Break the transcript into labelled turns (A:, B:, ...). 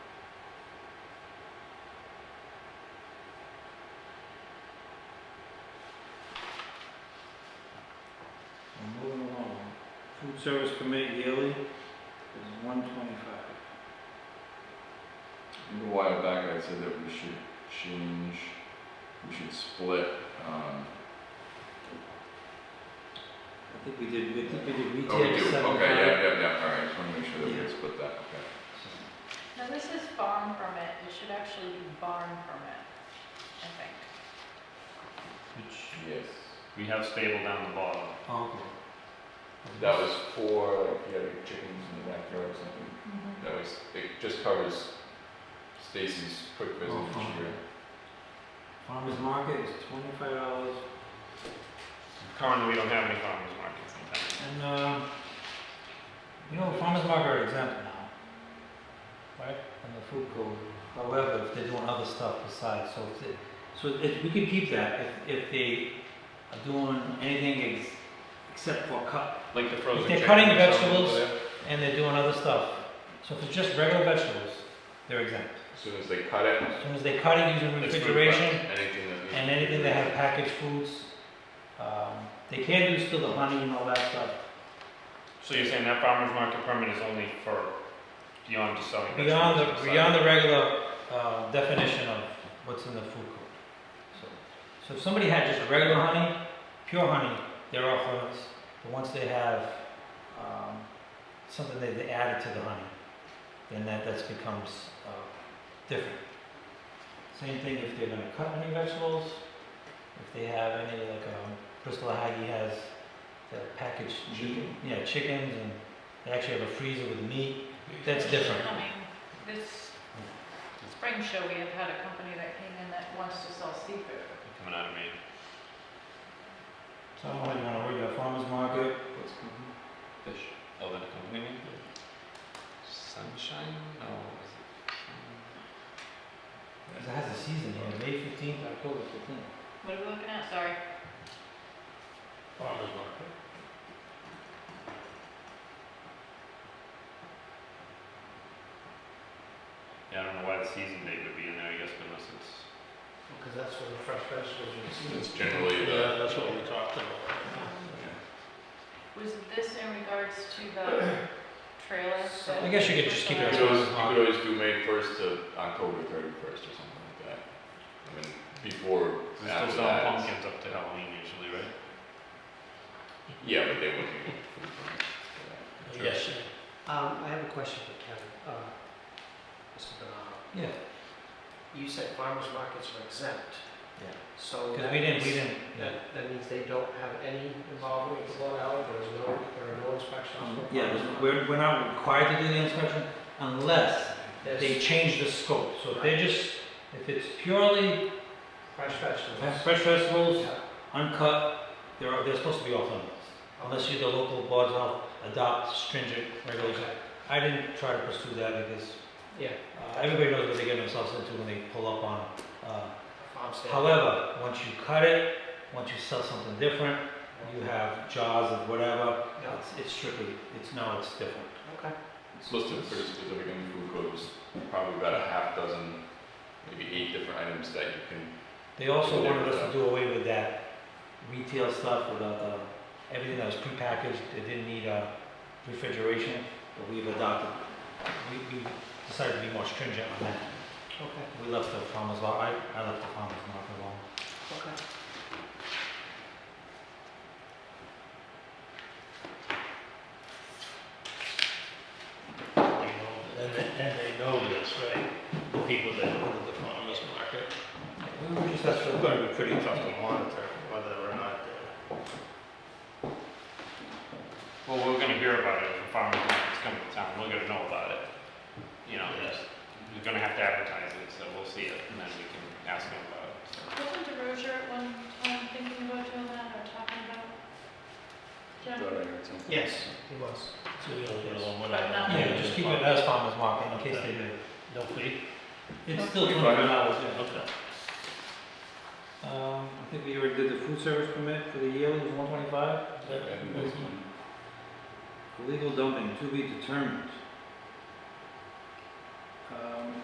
A: Food service committee yearly is one twenty-five.
B: A while back, I said that we should change, we should split, um,
A: I think we did, I think we did
B: oh, we
A: retail
B: do,
A: seven
B: okay, yeah,
A: five.
B: yeah, yeah, all right, just wanna make sure that we
A: Yeah.
B: split that, okay.
C: Now, this is barn permit, it should actually be barn permit, I think.
D: Which
B: Yes.
D: we have stable down the bottom.
A: Oh, Okay.
B: That was for, like, if you had chickens in the backyard or something,
A: Mm-hmm.
B: that was, it just covers Stacy's quick business
A: Oh,
B: each
A: fine.
B: year.
A: Farmers market is twenty-five dollars,
D: Currently, we don't have any farmers markets in town.
A: and, um, you know, farmers market are exempt now. Right. From the food code, however, if they're doing other stuff besides, so if, it- so if, we could keep that, if, if they are doing anything ex- except for cut,
D: Like the frozen
A: If they're
D: chicken
A: cutting
D: or something
A: vegetables-
D: over there.
A: and they're doing other stuff. So if it's just regular vegetables, they're exempt.
B: As soon as they cut it,
A: As soon as they cut it using
D: It's food
A: refrigeration
B: anything that needs.
A: and anything that have packaged foods, um, they can do still the honey and all that stuff.
D: So you're saying that farmers market permit is only for beyond just selling vegetables?
A: Beyond
D: on
A: the,
D: side?
A: beyond the regular, uh, definition of what's in the food code. So, so if somebody had just regular honey, pure honey, they're off limits. But once they have, um, something that they added to the honey, then that, that's becomes, uh, different. Same thing if they're gonna cut any vegetables, if they have any, like, um, Bristol Aggie has the packaged meat,
B: Chicken.
A: yeah, chickens, and they actually have a freezer with meat, that's different.
C: I mean, this spring show, we have had a company that came in that wants to sell seafood.
D: Coming out of Maine.
A: So I don't know how you wanna word that, farmer's market,
B: What's coming? Fish.
D: Oh, then a company name? Sunshine? No, what is it?
A: cause it has a season here, May fifteenth, October fifteenth.
C: What are we looking at, sorry?
D: Farmers market. Yeah, I don't know why the season date would be in there, I guess, unless it's.
E: Because that's where the fresh vegetables are
B: It's generally
E: Yeah,
B: the.
E: that's what we talked about.
C: Was this in regards to the trailer?
A: So I
C: that-
A: guess you could just keep it
B: You
A: as
B: could
A: well.
B: always, you could always do May first to October thirty-first or something like that. I mean, before,
D: They're still
B: after
D: selling
B: that. it's-
D: pumpkins up to Halloween usually, right?
B: Yeah, but they wouldn't. be food permits for that. Sure.
E: Yes. Um, I have a question for Kevin, uh, Mr. Bernardo.
A: Yeah,
E: You said farmers markets are exempt.
A: Yeah.
E: So.
A: cause
E: that
A: we didn't,
E: means-
A: we didn't, yeah.
E: That, that means they don't have any involvement with the Long Island, there's no, there are no inspections. for
A: Yeah,
E: farmers
A: there's-
E: market.
A: we're, we're not required to do the inspection unless they
E: There's
A: change the scope. So if they're just, if it's purely
E: fresh vegetables.
A: fresh vegetables,
E: Yeah,
A: uncut, they're, they're supposed to be off limits. Unless you, the local board of health adopt stringent regulations.
E: okay,
A: I didn't try to pursue that because
E: yeah,
A: uh, everybody knows what they get themselves into when they pull up on, uh,
E: farm stand.
A: However, once you cut it, once you sell something different, you have jaws of whatever,
E: Yeah,
A: it's, it's strictly, it's, no, it's different.
E: okay,
B: It's listed pretty specific in the food code, there's probably about a half dozen, maybe eight different items that you can,
A: They also wanted us to do away with that retail stuff without the, everything that was prepackaged, it didn't need, uh, refrigeration, but we've adopted. We, we decided to be more stringent on that.
E: okay,
A: We left the farmers, mar- I, I left the farmers market alone.
E: okay.
F: You know, and, they- and they know this, right? The people that go to the farmer's market,
A: We were just,
F: that's gonna be pretty tough to monitor whether or not they're.
D: Well, we're gonna hear about it if a farmer's market's coming to town, we're gonna know about it. You know,
F: Yes.
D: we're gonna have to advertise it, so we'll see it, and then we can ask them about it. so.
C: Wasn't DeRozier at one time thinking about doing that or talking about?
B: throw
C: John?
B: out or something.
E: Yes, it was.
F: So we don't get along with
C: But not-
A: yeah, just keep it as farmers market in case they do.
F: No fee?
A: It's still
B: Okay.
A: twenty-five dollars, yeah.
F: Okay.
A: Um, I think we already did the food service permit for the yearly, it was one twenty-five.
B: And this one,
A: Illegal dumping, to be determined. Um,